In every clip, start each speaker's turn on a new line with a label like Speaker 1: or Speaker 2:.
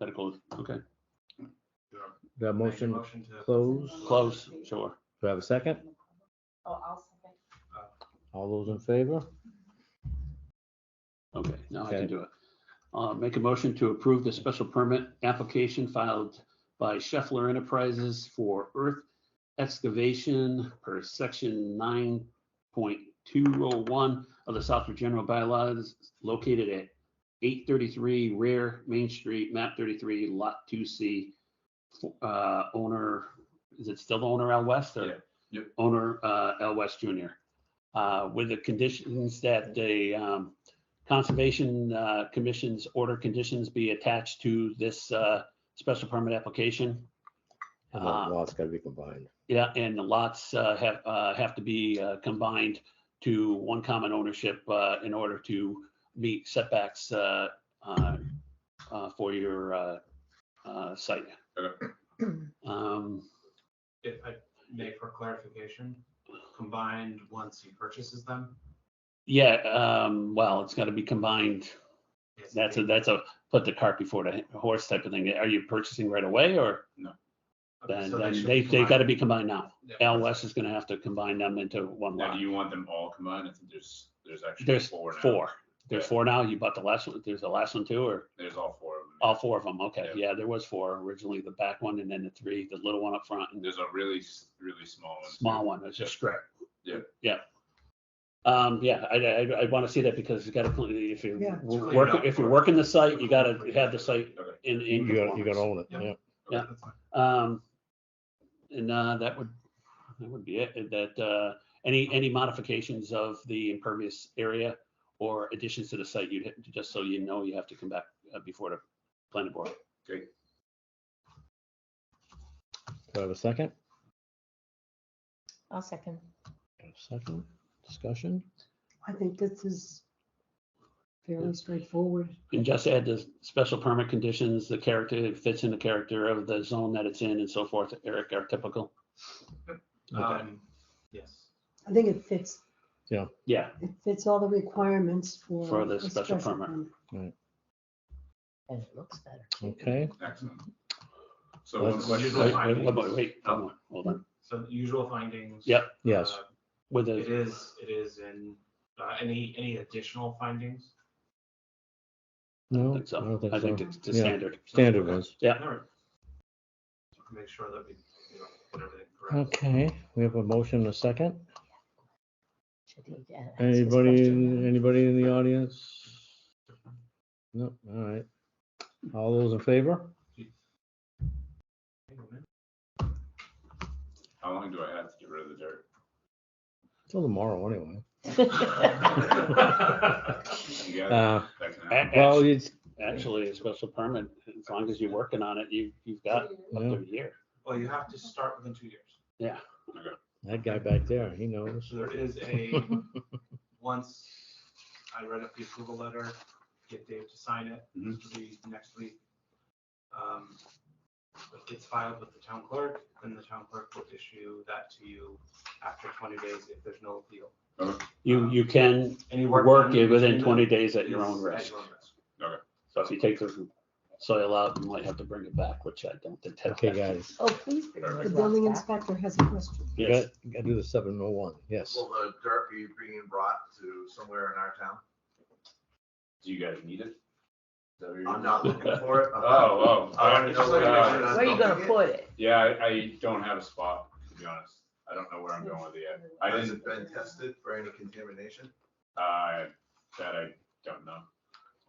Speaker 1: Let it close. Okay.
Speaker 2: Make a
Speaker 3: The motion
Speaker 2: Motion to.
Speaker 3: closed.
Speaker 1: Close. Sure.
Speaker 3: Do I have a second?
Speaker 4: Oh, I'll second.
Speaker 3: All those in favor?
Speaker 1: Okay. Now I
Speaker 3: Okay.
Speaker 1: can do it. Uh, make a motion to approve the special permit application filed by Scheffler Enterprises for earth excavation per section nine point two oh one of the Southwood General Bylaws located at eight thirty-three Rare Main Street, map thirty-three, lot two C. Uh, owner, is it still the owner Al West
Speaker 2: Yeah.
Speaker 1: or?
Speaker 2: Yep.
Speaker 1: Owner, uh, Al West Jr. Uh, with the conditions that the, um, Conservation, uh, Commission's order conditions be attached to this, uh, special permit application.
Speaker 3: The
Speaker 1: Uh,
Speaker 3: Lots gotta be combined.
Speaker 1: yeah, and the lots uh, have, uh, have to be uh, combined to one common ownership uh, in order to meet setbacks uh, uh, uh, for your uh, uh, site.
Speaker 2: Okay.
Speaker 1: Um,
Speaker 2: If I may for clarification, combined once he purchases them.
Speaker 1: Yeah, um, well, it's got to be combined.
Speaker 2: is
Speaker 1: That's a,
Speaker 2: it-
Speaker 1: that's a put the cart before the horse type of thing. Are you purchasing right away or
Speaker 2: okay,
Speaker 1: then
Speaker 2: so
Speaker 1: then
Speaker 2: should
Speaker 1: they,
Speaker 2: be
Speaker 1: they got to
Speaker 2: combined.
Speaker 1: be combined now?
Speaker 2: Yeah.
Speaker 1: Al West is going to have to combine them into one
Speaker 5: Now,
Speaker 1: lot.
Speaker 5: do you want them all combined? I think there's, there's actually
Speaker 1: There's
Speaker 5: four now.
Speaker 1: four. There's
Speaker 5: Yeah.
Speaker 1: four now. You bought the last one. There's the last one too, or?
Speaker 5: There's all four of them.
Speaker 1: All four of them, okay,
Speaker 5: Yeah.
Speaker 1: yeah, there was four originally, the back one and then the three, the little one up front and the
Speaker 5: There's a really, s- really small one. too.
Speaker 1: small one, it's a strip.
Speaker 5: Yeah.
Speaker 1: Yeah. Um, yeah, I, I, I wanna see that because you gotta, clean- if you
Speaker 4: Yeah.
Speaker 1: w- work, if you're working the site, you gotta have the site
Speaker 5: Okay.
Speaker 1: in, in.
Speaker 3: You gotta, you
Speaker 1: conformance.
Speaker 3: gotta own it,
Speaker 2: Yeah.
Speaker 3: yeah.
Speaker 2: Okay,
Speaker 1: yeah.
Speaker 2: that's fine.
Speaker 1: Um, and, uh, that would, that would be it, that, uh, any, any modifications of the impervious area or additions to the site, you'd, ha- just so you know, you have to come back uh, before the planning board.
Speaker 3: Do I have a second?
Speaker 4: I'll second.
Speaker 3: Second, discussion?
Speaker 6: I think this is fairly straightforward.
Speaker 1: And just add the special permit conditions, the character, it fits in the character of the zone that it's in and so forth, Eric, are typical. Okay.
Speaker 2: Um, yes.
Speaker 6: I think it fits,
Speaker 1: Yeah,
Speaker 6: it fits all the requirements for.
Speaker 1: For the
Speaker 6: a
Speaker 1: special permit.
Speaker 4: And it looks better.
Speaker 3: Okay,
Speaker 5: Excellent. So one
Speaker 3: Let's-
Speaker 5: question.
Speaker 1: wait,
Speaker 5: I-
Speaker 1: wait, wait, wait, Oh, wait, hold on, hold on.
Speaker 2: So the usual findings.
Speaker 1: Yep.
Speaker 3: yes,
Speaker 2: uh,
Speaker 1: With
Speaker 2: It
Speaker 1: the,
Speaker 2: is, it is in, uh, any, any additional findings?
Speaker 1: I
Speaker 3: no, I
Speaker 1: think
Speaker 3: don't
Speaker 1: so, I think
Speaker 3: think so.
Speaker 1: it's the
Speaker 3: Yeah.
Speaker 1: standard.
Speaker 3: Standard ones.
Speaker 1: Yeah.
Speaker 2: All right. Make sure that we, you know, put everything correct.
Speaker 3: Okay, we have a motion and a second.
Speaker 4: Should he, uh, ask this
Speaker 3: Anybody,
Speaker 4: question?
Speaker 3: in- anybody in the audience? No, all right. All those in favor?
Speaker 2: Hang on a minute.
Speaker 5: How long do I have to get rid of the dirt?
Speaker 3: Till tomorrow, anyway.
Speaker 5: You got it?
Speaker 3: Uh,
Speaker 5: That can
Speaker 1: A-
Speaker 5: happen.
Speaker 3: well,
Speaker 1: act-
Speaker 3: it's,
Speaker 1: Actually, a special permit, as long as you're working on it, you, you've got up to
Speaker 3: Yeah.
Speaker 1: a year.
Speaker 2: Well, you have to start within two years.
Speaker 3: that guy back there, he knows.
Speaker 2: So there is a, once I read up the approval letter, get Dave to sign it,
Speaker 1: Mm-hmm.
Speaker 5: Mhm.
Speaker 2: which will be next week. Um, It gets filed with the town clerk, and the town clerk will issue that to you after twenty days if there's no appeal.
Speaker 1: You, you can
Speaker 2: Any
Speaker 1: work
Speaker 2: done
Speaker 1: it within
Speaker 2: between
Speaker 1: twenty
Speaker 2: then
Speaker 1: days at your
Speaker 2: is
Speaker 1: own risk.
Speaker 5: Okay.
Speaker 1: So if you take the soil out, you might have to bring it back, which I don't think.
Speaker 3: Okay, guys,
Speaker 4: Oh, please. bring
Speaker 6: The
Speaker 4: his
Speaker 6: building
Speaker 4: laptop.
Speaker 6: inspector has a question.
Speaker 3: you
Speaker 1: Yes,
Speaker 3: gotta, you gotta do the seven oh one, yes.
Speaker 7: Will the dirt be being brought to somewhere in our town?
Speaker 5: Do you guys need it? Is that what you're-
Speaker 7: I'm not looking for it. I'm-
Speaker 5: Oh, oh.
Speaker 7: I wanna know where
Speaker 5: Uh,
Speaker 7: it is.
Speaker 4: Where are you gonna put it?
Speaker 5: Yeah, I, I don't have a spot, to be honest. I don't know where I'm going with it yet. I
Speaker 7: Has
Speaker 5: didn't,
Speaker 7: it been tested for any contamination?
Speaker 5: uh, that I don't know.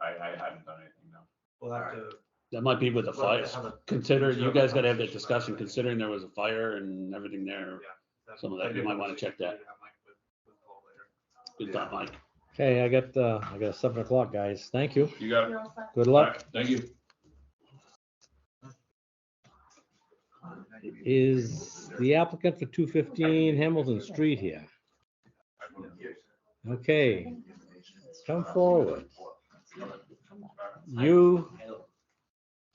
Speaker 5: I, I haven't done anything, no.
Speaker 2: We'll have to.
Speaker 1: that might be with the
Speaker 2: we'll have to
Speaker 1: fire.
Speaker 2: have a-
Speaker 1: Consider,
Speaker 2: Sure,
Speaker 1: you guys gotta have that
Speaker 2: conversation about
Speaker 1: discussion,
Speaker 2: that.
Speaker 1: considering there was a fire and everything there. Some of that, you might wanna check that.
Speaker 2: Yeah, Mike, with- with Paul later.
Speaker 1: Good thought, Mike.
Speaker 3: Okay, I got, uh, I got seven o'clock, guys. Thank you.
Speaker 5: You got it?
Speaker 4: You're all set?
Speaker 3: Good luck.
Speaker 5: Alright, Thank you.
Speaker 3: Is the applicant for two fifteen Hamilton Street here? Okay, come forward. You,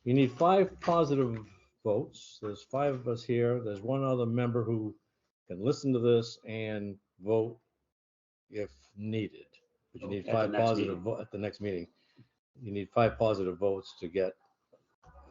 Speaker 3: you need five positive votes. There's five of us here. There's one other member who can listen to this and vote if needed. But you need
Speaker 1: At the
Speaker 3: five
Speaker 1: next
Speaker 3: positive
Speaker 1: meeting.
Speaker 3: vo- at the next meeting. You need five positive votes to get